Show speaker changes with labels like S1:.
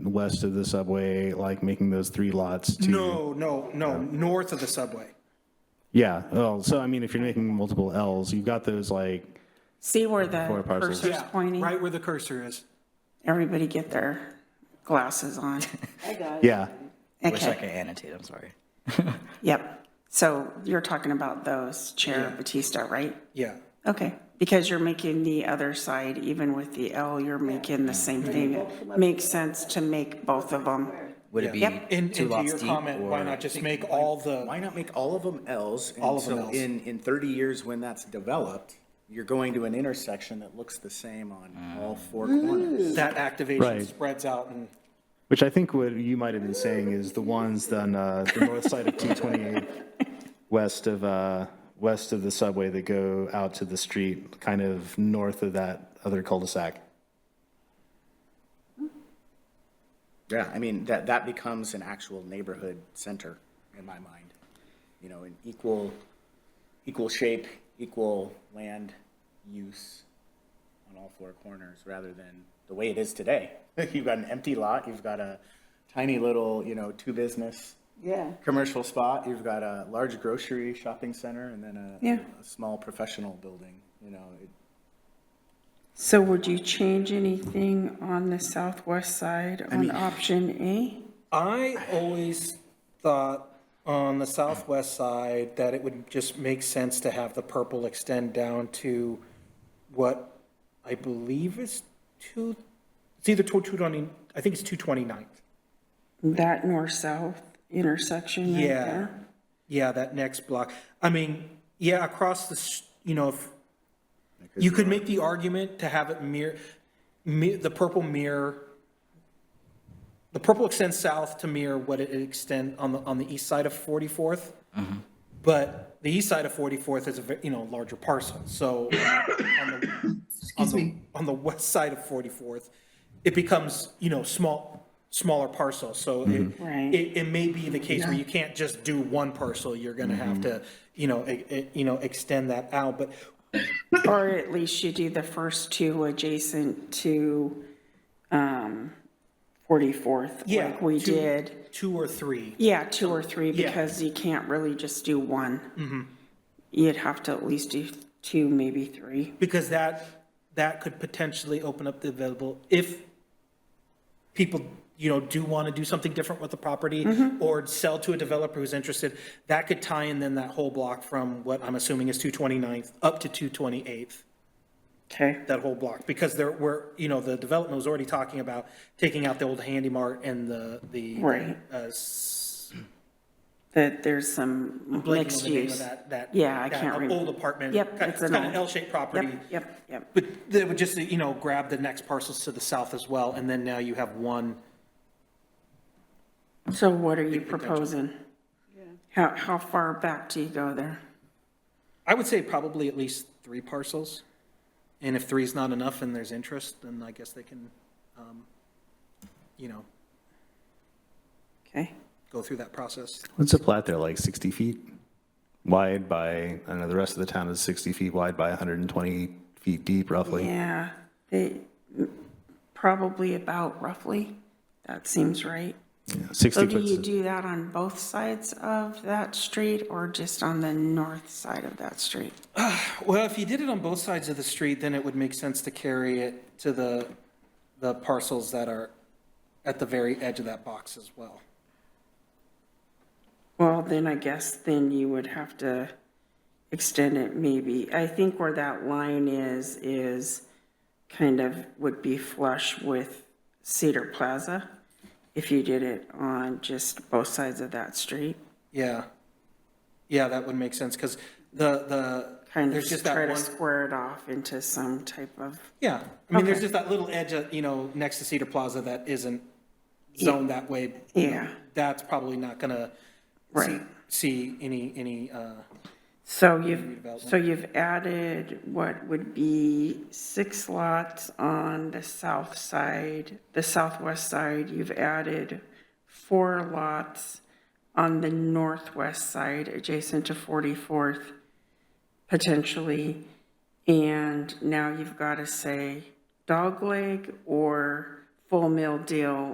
S1: west of the subway, like making those three lots to?
S2: No, no, no, north of the subway.
S1: Yeah, oh, so I mean, if you're making multiple Ls, you've got those like,
S3: See where the
S1: Four parcels.
S3: cursor's
S2: Yeah,
S3: pointing?
S2: Right where the cursor is.
S3: Everybody get their glasses on.
S1: yeah,
S4: Wish I
S3: Okay,
S4: could annotate, I'm sorry.
S3: yep. So you're talking about those, Chair Batista, right?
S2: Yeah.
S3: Okay, because you're making the other side, even with the L, you're making the same thing. It Makes sense to make both of them.
S4: Would it be
S3: Yep.
S2: And and
S4: two
S2: to
S4: lots
S2: your
S4: deep?
S2: comment, why
S4: or-
S2: not just make all the,
S5: Why not make all of them Ls?
S2: All of them
S5: And
S2: Ls.
S5: so in, in 30 years, when that's developed, you're going to an intersection that looks the same on all four corners.
S2: that activation
S1: Right.
S2: spreads out and,
S1: which I think what you might have been saying is the ones on uh, the north side of 228, west of, uh, west of the subway that go out to the street, kind of north of that other cul-de-sac.
S5: Yeah, I mean, that, that becomes an actual neighborhood center in my mind. You know, an equal, equal shape, equal land use on all four corners rather than the way it is today. You've got an empty lot, you've got a tiny little, you know, two business.
S6: Yeah.
S5: commercial spot, you've got a large grocery shopping center and then a,
S3: Yeah.
S5: a small professional building, you know. it-
S3: So would you change anything on the southwest side on option A?
S2: I always thought on the southwest side that it would just make sense to have the purple extend down to what I believe is two, it's either two twenty, I think it's two twenty-ninth.
S3: That north-south intersection right
S2: Yeah.
S3: there?
S2: Yeah, that next block. I mean, yeah, across the, s- you know, if, you could make the argument to have it mirror, mi- the purple mirror, the purple extends south to mirror what it extend on the, on the east side of 44th. But the east side of 44th is a, ve- you know, larger parcel, so on the, on the, on the west side of 44th, it becomes, you know, small, smaller parcel, so it,
S3: Right.
S2: it, it may be the case where you can't just do one parcel, you're gonna have to, you know, e- e- you know, extend that out, but
S3: Or at least you do the first two adjacent to um, 44th,
S2: Yeah,
S3: like we
S2: two-
S3: did.
S2: two or three.
S3: Yeah, Mm-hmm. two or three,
S2: Yeah.
S3: because you can't really just do one. You'd have to at least do two, maybe three.
S2: because that, that could potentially open up the available, if people, you know, do want to do something different with the property
S3: Mm-hmm.
S2: or sell to a developer who's interested, that could tie in then that whole block from what I'm assuming is 229th up to 228th,
S3: Okay,
S2: that whole block, because there were, you know, the development was already talking about taking out the old Handy Mart and the, the.
S3: Right.
S2: uh, s-
S3: that there's some
S2: blanking on
S3: mixed
S2: the name of
S3: use.
S2: That, that.
S3: Yeah, I
S2: that
S3: can't remember.
S2: Old apartment.
S3: Yep,
S2: kind-
S3: it's
S2: It's
S3: an
S2: kind of
S3: old-
S2: L-shaped property.
S3: Yep, yep, yep.
S2: But they would just, you know, grab the next parcels to the south as well, and then now you have one.
S3: So what are you proposing? How, how far back do you go there?
S2: I would say probably at least three parcels. And if three's not enough and there's interest, then I guess they can, um, you know,
S3: Okay,
S2: go through that process.
S1: What's the plat there, like 60 feet wide by, I don't know, the rest of the town is 60 feet wide by 120 feet deep roughly.
S3: yeah, they, probably about roughly, that seems right.
S1: Yeah, 60
S3: So do you
S1: foot,
S3: do that on both sides of that street or just on the north side of that street?
S2: Well, if you did it on both sides of the street, then it would make sense to carry it to the, the parcels that are at the very edge of that box as well.
S3: Well, then I guess then you would have to extend it maybe. I think where that line is, is kind of would be flush with Cedar Plaza if you did it on just both sides of that street.
S2: Yeah. Yeah, that would make sense, because the, the,
S3: Kind of
S2: there's just that
S3: try to
S2: one.
S3: square it off into some type of,
S2: Yeah, I mean, there's
S3: Okay.
S2: just that little edge, of you know, next to Cedar Plaza that isn't zoned that way.
S3: yeah,
S2: That's probably not gonna see,
S3: right.
S2: see any, any, uh,
S3: So you've, so you've added what would be six lots on the south side, the southwest side. You've added four lots on the northwest side adjacent to 44th potentially. And now you've got to say dogleg or full mill deal